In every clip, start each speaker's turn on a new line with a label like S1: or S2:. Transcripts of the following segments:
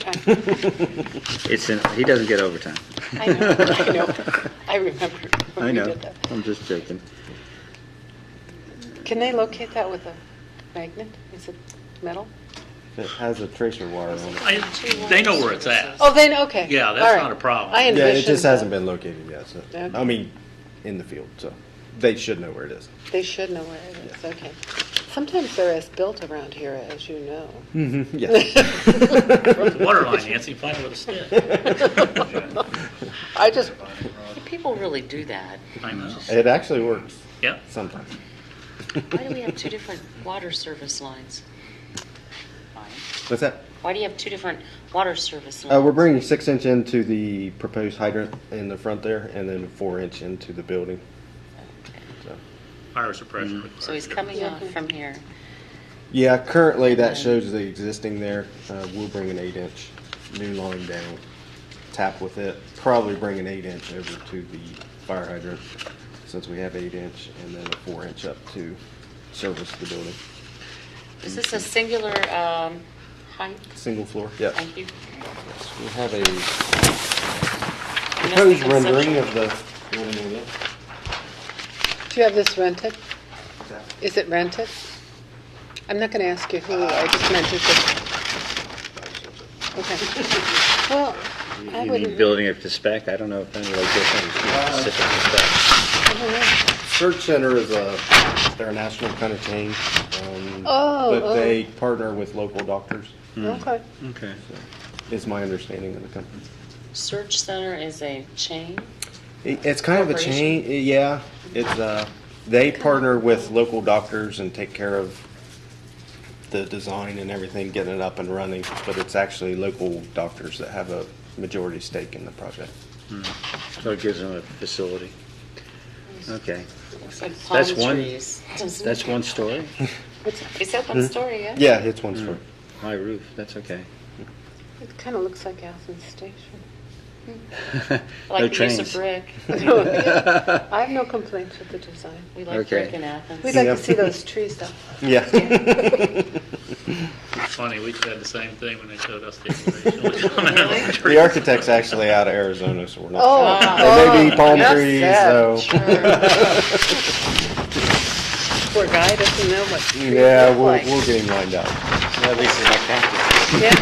S1: Overtime.
S2: It's, in- he doesn't get overtime.
S1: I know, I know. I remember when
S2: I
S1: we
S2: know,
S1: did that.
S2: I'm just joking.
S1: Can they locate that with a magnet? Is it metal?
S3: It has a tracer wire on it.
S4: I- They know where it's at.
S1: Oh, then, okay.
S4: Yeah, that's
S1: All right.
S4: not a problem.
S1: I
S3: Yeah, it just
S1: envisioned-
S3: hasn't been located yet, so,
S1: Okay.
S3: I mean, in the field, so they should know where it is.
S1: They should know where it is, okay. Sometimes they're as built around here as you know.
S5: Mm-hmm.
S3: Yeah,
S4: It's the Water line, Nancy, find it with a stick.
S1: I just,
S5: People really do that.
S4: I know.
S3: it actually works
S4: Yep.
S3: sometimes.
S5: Why do we have two different water service lines?
S3: What's that?
S5: Why do you have two different water service lines?
S3: Uh, we're bringing six inch into the proposed hydrant in the front there, and then four inch into the building. So,
S4: Fire suppression.
S5: So he's coming on from here.
S3: Yeah, currently that shows the existing there. Uh, we'll bring an eight inch new line down, tap with it, probably bring an eight inch over to the fire hydrant, since we have eight inch, and then a four inch up to service the building.
S5: Is this a singular um, height?
S3: Single floor, yeah.
S5: Thank you.
S3: We have a
S5: Unless they
S3: proposed
S5: conceptual-
S3: rendering of the building with it.
S1: do you have this rented? Is it rented? I'm not going to ask you who, I just meant is it, okay. Well, I
S2: Uh, You mean
S1: wouldn't,
S2: building up to spec? I don't know if any like this one is specific to spec.
S1: I don't know.
S3: Search Center is a, they're a national kind of chain. um,
S1: Oh, oh.
S3: But they partner with local doctors,
S2: Hmm.
S1: okay.
S2: Okay.
S3: is my understanding of the company.
S5: Search Center is a chain?
S3: It- It's kind of a chain, yeah. It's, uh, they partner with local doctors and take care of the design and everything, getting it up and running. But it's actually local doctors that have a majority stake in the project.
S2: So it gives them a facility. Okay.
S5: Looks like palm
S2: That's one-
S5: trees. Doesn't-
S2: That's one story?
S5: Is that one story, yeah?
S3: Mm-hmm. Yeah, it's one story.
S2: High roof, that's okay.
S1: It kind of looks like Athens Station.
S2: No
S5: Like the use of
S2: trains.
S5: brick.
S1: I have no complaints with the design.
S5: We like
S2: Okay.
S5: brick in Athens.
S1: We'd like
S3: Yeah.
S1: to see those trees though.
S3: Yeah.
S4: It's funny, we had the same thing when they showed us the information.
S3: The architect's actually out of Arizona, so we're not.
S1: Oh,
S3: They may be palm
S1: That's
S3: trees,
S1: sad.
S3: so.
S1: Poor guy doesn't know what trees
S3: Yeah,
S1: look
S3: we'll,
S1: like.
S3: we'll get him lined up.
S2: At least it's like that.
S1: Yeah.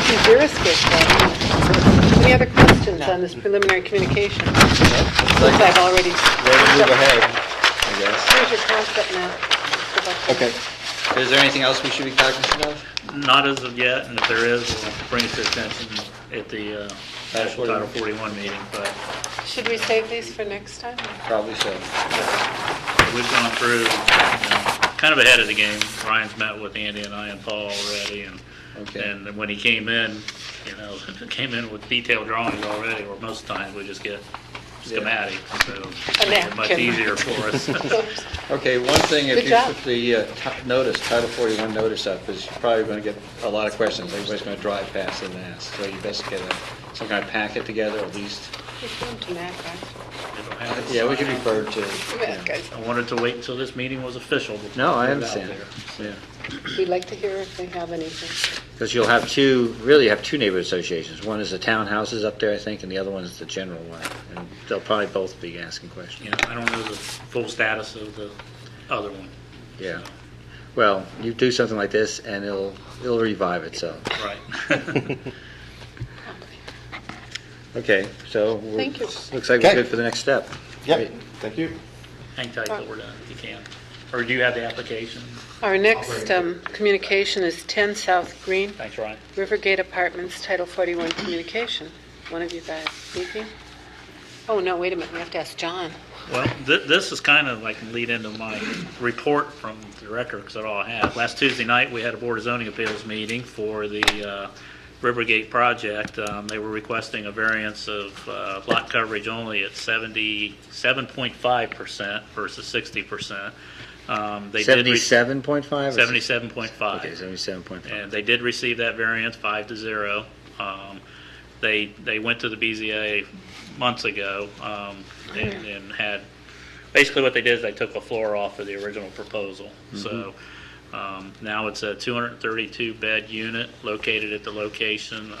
S1: Could be deer escape though. Any other questions on this preliminary communication? Since I've already,
S6: Ready to move ahead, I guess.
S1: here's your concept map.
S3: Okay.
S6: Is there anything else we should be cognizant of?
S4: Not as of yet, and if there is, we'll bring it to attention at the uh,
S6: Title
S4: Title
S6: 41.
S4: 41 meeting, but
S1: Should we save these for next time?
S6: Probably so.
S4: we've gone through, you know, kind of ahead of the game. Ryan's met with Andy and I and Paul already, and,
S6: Okay.
S4: and when he came in, you know, came in with detailed drawings already, where most times we just get schematic, so it's much
S1: napkin.
S4: easier for us.
S6: Okay, one thing,
S1: Good
S6: if you
S1: job.
S6: put the uh, ti- notice, Title 41 notice up, is you're probably going to get a lot of questions. Everybody's going to drive past it and ask. So you best get a- some kind of packet together at least.
S1: Just go to Mac, right?
S6: Yeah, we could refer to.
S1: Mac,
S6: yeah.
S1: guys.
S4: I wanted to wait until this meeting was official. before
S6: No, I
S4: we got
S6: understand.
S4: there.
S6: Yeah.
S1: We'd like to hear if they have anything.
S2: Because you'll have two, really you have two neighborhood associations. One is the townhouses up there, I think, and the other one's the general one. And they'll probably both be asking questions.
S4: You know, I don't know the full status of the other one.
S2: Yeah. Well, you do something like this and it'll, it'll revive itself.
S4: Right.
S2: Okay, so. we're-
S1: Thank you.
S2: Looks like we're
S3: Okay.
S2: good for the next step.
S3: Yep, thank you.
S4: Hang tight till we're done, if you can. Or do you have the application?
S1: Our next um, communication is 10 South Green,
S4: Thanks, Ryan.
S1: Rivergate Apartments, Title 41 Communication. One of you guys speaking? Oh, no, wait a minute, we have to ask John.
S4: Well, th- this is kind of like lead into my report from the record, because all I have. Last Tuesday night, we had a Board of Zoning Appeals meeting for the uh, Rivergate project. Um, They were requesting a variance of uh, lot coverage only at 77.5% versus 60%. Um, They did re-
S2: Seventy-seven point five?
S4: 77.5.
S2: Okay, seventy-seven point five.
S4: And they did receive that variance, five to zero. Um, They, they went to the BZA months ago um, and
S2: Mm-hmm.
S4: and had, basically what they did is they took the floor off of the original proposal. So Um, Now it's a 232-bed unit located at the location